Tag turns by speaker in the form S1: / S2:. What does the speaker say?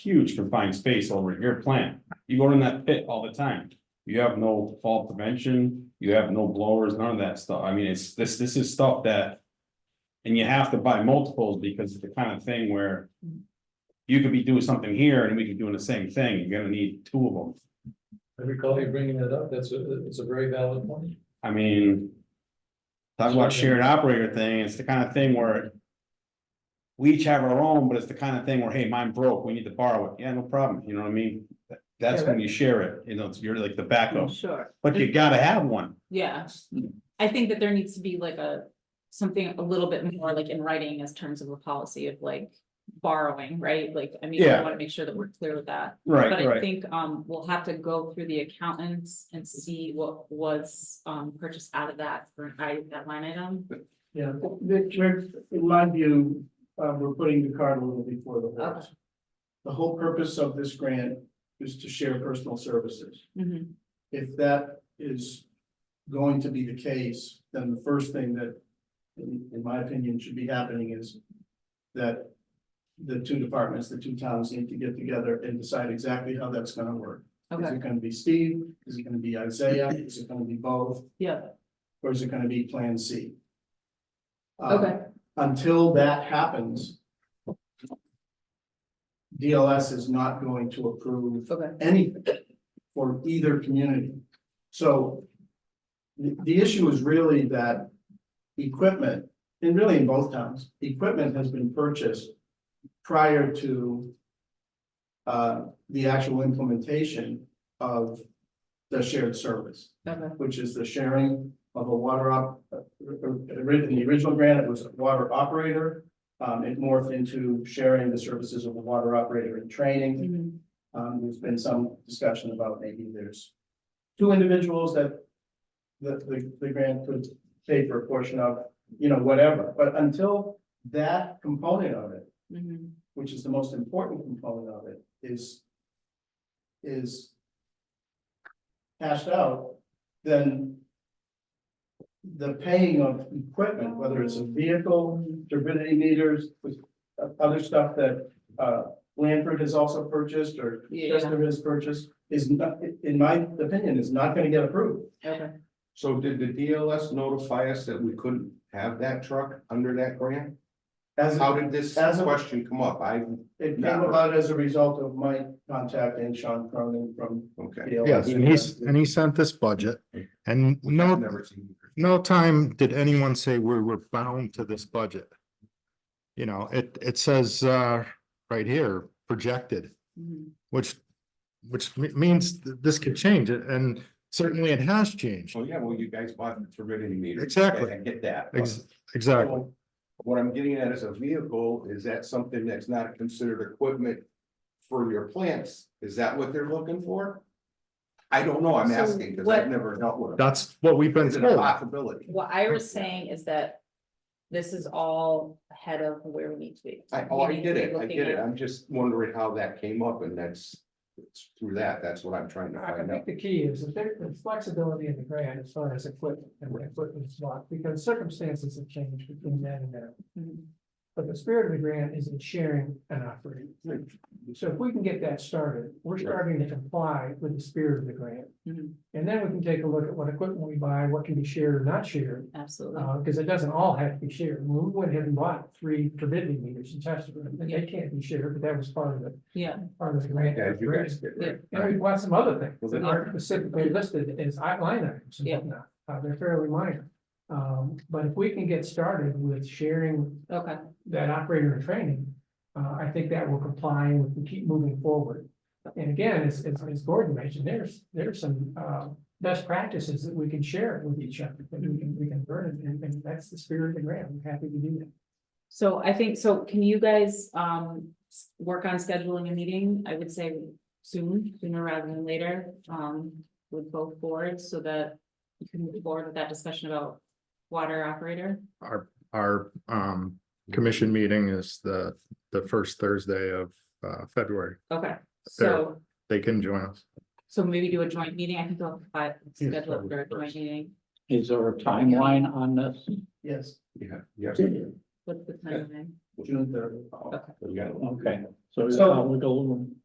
S1: huge confined space over in your plant. You go in that pit all the time. You have no fall prevention, you have no blowers, none of that stuff. I mean, it's, this, this is stuff that. And you have to buy multiples because it's the kind of thing where. You could be doing something here and we could be doing the same thing. You're gonna need two of them.
S2: I recall you bringing that up, that's a, it's a very valid point.
S1: I mean. Talk about shared operator thing, it's the kind of thing where. We each have our own, but it's the kind of thing where, hey, mine broke, we need to borrow it, yeah, no problem, you know what I mean? That- That's when you share it, you know, it's- you're like the backup,
S3: Sure,
S1: but you gotta have one,
S3: yeah. I think that there needs to be like a, something a little bit more like in writing as terms of a policy of like borrowing, right? Like, I mean, I
S1: Yeah.
S3: want to make sure that we're clear with that. But
S1: right,
S3: I
S1: right,
S3: think, um, we'll have to go through the accountants and see what was, um, purchased out of that for an item, that line item.
S4: Yeah, Rich, Rich, in my view, uh, we're putting the cart a little before the horse. The whole purpose of this grant is to share personal services.
S3: Mhm.
S4: If that is going to be the case, then the first thing that, in, in my opinion, should be happening is that the two departments, the two towns need to get together and decide exactly how that's gonna work. Is
S3: Okay,
S4: it gonna be Steve? Is it gonna be Isaiah? Is it gonna be both?
S3: yeah,
S4: Or is it gonna be Plan C? Um,
S3: okay,
S4: until that happens. DLS is not going to approve
S3: okay,
S4: anything for either community. So the, the issue is really that equipment, and really in both towns, equipment has been purchased prior to uh, the actual implementation of the shared service
S3: okay,
S4: which is the sharing of a water op, uh, ori- in the original grant, it was a water operator. Um, it morphed into sharing the services of a water operator in training.
S3: Mhm.
S4: Um, there's been some discussion about maybe there's two individuals that the, the, the grant could pay for a portion of, you know, whatever. But until that component of it,
S3: Mhm.
S4: which is the most important component of it, is is hashed out, then the paying of equipment, whether it's a
S3: Mm-hmm.
S4: vehicle, turbidity meters, with uh, other stuff that uh Lanford has also purchased or
S3: Yeah.
S4: Chester has purchased, is not, in my opinion, is not gonna get approved.
S3: okay.
S5: So did the DLS notify us that we couldn't have that truck under that grant?
S4: As
S5: How did this
S4: As a-
S5: question come up? I,
S4: it came about as a result of my contacting Sean Cronin from
S5: okay.
S4: DLS.
S6: Yes, and he's, and he sent this budget and
S5: I've
S6: no,
S5: never seen it.
S6: no time did anyone say we were bound to this budget. You know, it, it says, uh, right here, projected,
S3: Mhm.
S6: which, which me- means th- this could change it, and certainly it has changed.
S5: Oh, yeah, well, you guys bought the turbidity meter.
S6: Exactly.
S5: I get that. but
S6: Ex- Exactly.
S5: What I'm getting at is a vehicle, is that something that's not considered equipment for your plants? Is that what they're looking for? I don't know, I'm
S3: So
S5: asking, because
S3: what-
S5: I've never dealt with it.
S6: That's what we've been
S5: Is it a
S6: told.
S5: possibility?
S3: What Ira's saying is that this is all ahead of where we need to be.
S5: I, oh, I
S3: We need to
S5: get
S3: be
S5: it, I
S3: looking
S5: get it,
S3: at-
S5: I'm just wondering how that came up, and that's, it's through that, that's what I'm trying to
S7: I I
S5: find out.
S7: think the key is that there- there's flexibility in the grant as far as equipment and what equipment's not, because circumstances have changed between then and now.
S3: Mhm.
S7: But the spirit of the grant is in sharing and operating. So if we can get that started, we're starting to comply with the spirit of the grant.
S3: Mhm.
S7: And then we can take a look at what equipment we buy, what can be shared or not shared,
S3: Absolutely.
S7: uh, because it doesn't all have to be shared. We went ahead and bought three turbidity meters and tested them, and they can't be shared, but that was part of the,
S3: Yeah,
S7: part of the grant.
S5: Yeah, you guys did, right?
S7: And we bought some other things that
S5: Well,
S7: aren't specifically listed as line items and
S3: Yeah.
S7: whatnot, uh, they're fairly minor. Um, but if we can get started with sharing
S3: okay,
S7: that operator and training, uh, I think that will comply and we can keep moving forward. And again, as, as, as Gordon mentioned, there's, there's some, uh, best practices that we can share with each other, that we can, we can learn, and, and that's the spirit of the grant, I'm happy to do that.
S3: so I think, so can you guys, um, s- work on scheduling a meeting, I would say soon, sooner rather than later, um, with both boards, so that you can move forward with that discussion about water operator?
S6: Our, our, um, commission meeting is the, the first Thursday of, uh, February.
S3: Okay, so,
S6: They can join us.
S3: so maybe do a joint meeting, I think I'll, uh, schedule it for a joint meeting,
S8: Is there a timeline on this?
S4: Yes.
S5: Yeah, yes.
S3: what's the timeline?
S5: June third.
S9: We got it.
S4: Okay, so
S5: So-
S4: uh, we go.